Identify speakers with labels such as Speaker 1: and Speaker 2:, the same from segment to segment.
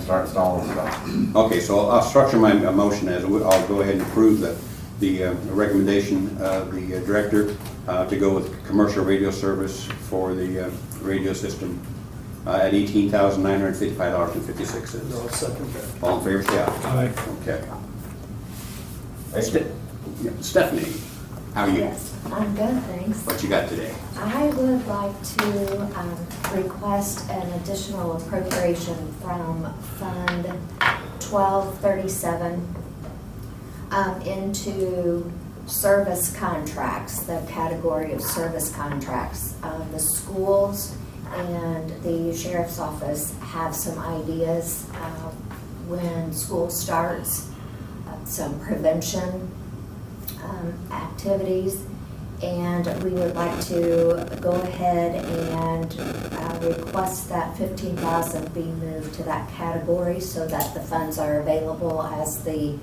Speaker 1: start installing stuff.
Speaker 2: Okay, so I'll- I'll structure my uh, motion as, we- I'll go ahead and approve the, the uh, recommendation of the uh, director uh, to go with commercial radio service for the uh, radio system uh, at eighteen thousand nine hundred fifty-five dollars and fifty-six
Speaker 3: No,
Speaker 2: cents.
Speaker 3: second that.
Speaker 2: All in favor, say aye.
Speaker 3: Aye.
Speaker 2: Okay.
Speaker 1: Thank you.
Speaker 2: Ste- yeah, Stephanie, how are you?
Speaker 4: Yes, I'm good, thanks.
Speaker 2: What you got today?
Speaker 4: I would like to um, request an additional appropriation from Fund 1237 um, into service contracts, the category of service contracts. Um, The schools and the sheriff's office have some ideas uh, when school starts, uh, some prevention um, activities. And we would like to go ahead and uh, request that fifteen thousand be moved to that category so that the funds are available as the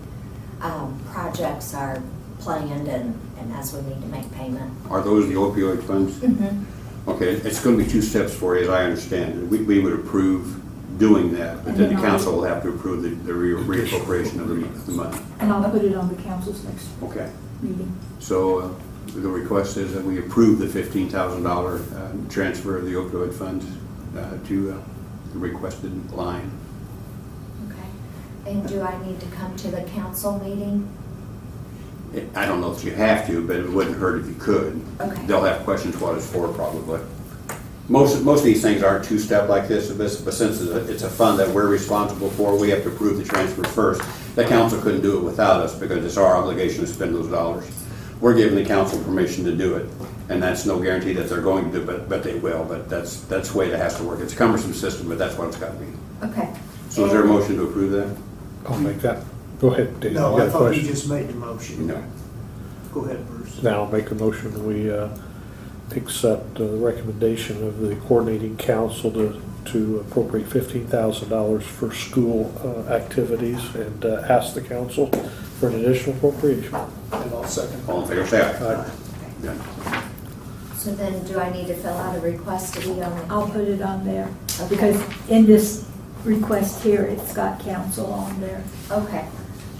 Speaker 4: um, projects are planned and, and as we need to make payment.
Speaker 2: Are those the opioid funds?
Speaker 5: Mm-hmm.
Speaker 2: Okay, it's going to be two steps for you, as I understand it. We, we would approve doing that, but then the council will have to approve the, the re- reappropriation of the, mon- the money.
Speaker 5: And I'll put it on the council's next
Speaker 2: Okay,
Speaker 5: meeting.
Speaker 2: so uh, the request is that we approve the fifteen thousand dollar, uh, transfer of the opioid funds, uh, to, uh, the requested line.
Speaker 4: Okay. And do I need to come to the council meeting?
Speaker 2: It- I don't know if you have to, but it wouldn't hurt if you could.
Speaker 4: Okay.
Speaker 2: They'll have questions what it's for probably. Most, most of these things aren't two-step like this, but but since it's a- it's a fund that we're responsible for, we have to approve the transfer first. The council couldn't do it without us because it's our obligation to spend those dollars. We're giving the council permission to do it, and that's no guarantee that they're going to, do, but, but they will, but that's, that's the way that has to work. It's a cumbersome system, but that's what it's gotta be.
Speaker 4: Okay.
Speaker 2: So is there a motion to approve that?
Speaker 6: I'll make that. Go ahead, Dave. You
Speaker 3: No,
Speaker 6: got
Speaker 3: I
Speaker 6: a
Speaker 3: thought you
Speaker 6: question?
Speaker 3: just made the motion. Go ahead, Bruce.
Speaker 6: Now, I'll make a motion, we uh, accept the recommendation of the coordinating council to, to appropriate fifteen thousand dollars for school uh, activities and uh, ask the council for an additional appropriation. Uh,
Speaker 3: And I'll second
Speaker 2: All in favor, say aye.
Speaker 6: Aye.
Speaker 2: Done.
Speaker 4: So then do I need to fill out a request to be on?
Speaker 5: I'll put it on there,
Speaker 4: Okay.
Speaker 5: because in this request here, it's got council on there.
Speaker 4: Okay.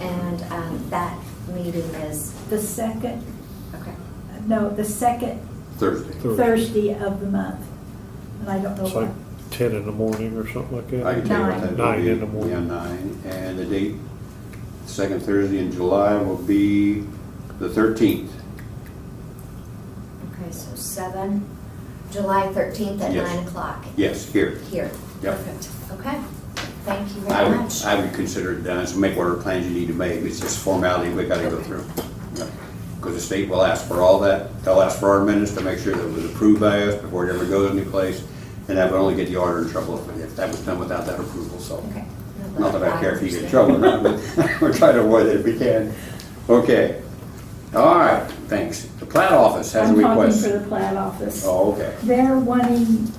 Speaker 4: And um, that meeting is,
Speaker 5: The second,
Speaker 4: okay.
Speaker 5: no, the second
Speaker 2: Thursday.
Speaker 5: Thursday of the month. And I don't know
Speaker 6: It's like
Speaker 5: what,
Speaker 6: ten in the morning or something like
Speaker 2: I can
Speaker 6: that.
Speaker 2: tell you what that will be.
Speaker 6: Nine. Nine in the morning.
Speaker 2: Yeah, nine, and the date, second Thursday in July will be the thirteenth.
Speaker 4: Okay, so seven, July thirteenth at
Speaker 2: Yes.
Speaker 4: nine o'clock
Speaker 2: Yes, here.
Speaker 4: here.
Speaker 2: Yep.
Speaker 4: Perfect. Okay. Thank you
Speaker 2: I
Speaker 4: very
Speaker 2: would,
Speaker 4: much.
Speaker 2: I would consider it done, so make whatever plans you need to make, it's just formality we gotta go through. Because the state will ask for all that, they'll ask for our minutes to make sure that it was approved by us before it ever goes anyplace, and that would only get the auditor in trouble if, if that was done without that approval, so.
Speaker 4: Okay.
Speaker 2: Not that I care if you get in
Speaker 4: understand.
Speaker 2: trouble or not, but we're trying to avoid it if we can. Okay. All right, thanks. The plat office has a
Speaker 5: I'm talking
Speaker 2: request.
Speaker 5: for the plat office.
Speaker 2: Oh, okay.
Speaker 5: They're wanting,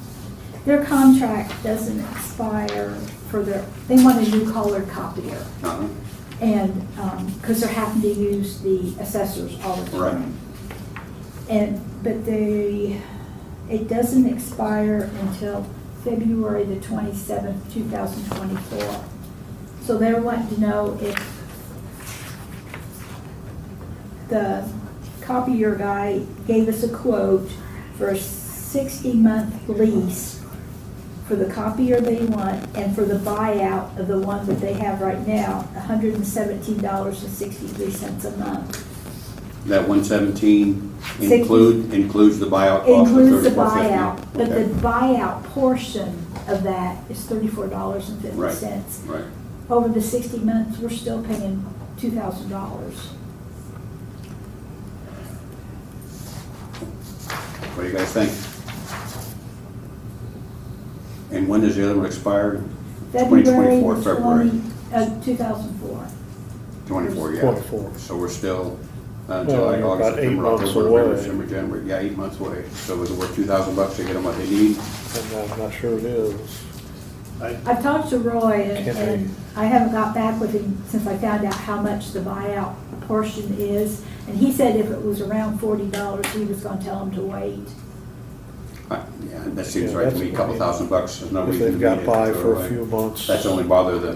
Speaker 5: their contract doesn't expire for their, they want a new color copier.
Speaker 2: Uh-huh.
Speaker 5: And, um because they're having to use the assessors all the
Speaker 2: Right.
Speaker 5: time. And, but they, it doesn't expire until February the twenty-seventh, two thousand twenty-four. So they're wanting to know if the copier guy gave us a quote for a sixty-month lease for the copier they want and for the buyout of the one that they have right now, hundred and seventeen dollars and sixty-three cents a month.
Speaker 2: That one seventeen
Speaker 5: Six-
Speaker 2: include, includes the buyout cost of
Speaker 5: Includes the
Speaker 2: thirty-four
Speaker 5: buyout,
Speaker 2: fifty?
Speaker 5: but the buyout portion of that is thirty-four dollars and fifty cents.
Speaker 2: Right.
Speaker 5: Over the sixty months, we're still paying two thousand dollars.
Speaker 2: What do you guys think? And when does the other one expire?
Speaker 5: February uh,
Speaker 2: 2024, February.
Speaker 5: two thousand four.
Speaker 2: Twenty-four, yeah.
Speaker 6: 24.
Speaker 2: So we're still, uh,
Speaker 6: Well,
Speaker 2: July,
Speaker 6: you're
Speaker 2: August,
Speaker 6: about eight
Speaker 2: September,
Speaker 6: months
Speaker 2: October, November,
Speaker 6: away.
Speaker 2: December, January, yeah, eight months away. So it's worth two thousand bucks to get them what they need.
Speaker 6: And I'm not sure it is.
Speaker 5: I've talked to Roy and-
Speaker 6: Can't
Speaker 5: and I haven't got back with him since I found out how much the buyout portion is. And he said if it was around forty dollars, he was gonna tell him to wait.
Speaker 2: Uh, Yeah, that seems
Speaker 6: Yeah,
Speaker 2: right to
Speaker 6: that's
Speaker 2: me, a couple
Speaker 6: fine.
Speaker 2: thousand bucks, there's no
Speaker 6: If
Speaker 2: reason to
Speaker 6: they've
Speaker 2: beat it.
Speaker 6: got by
Speaker 2: so,
Speaker 6: for
Speaker 2: uh,
Speaker 6: a few months.
Speaker 2: That's only bother the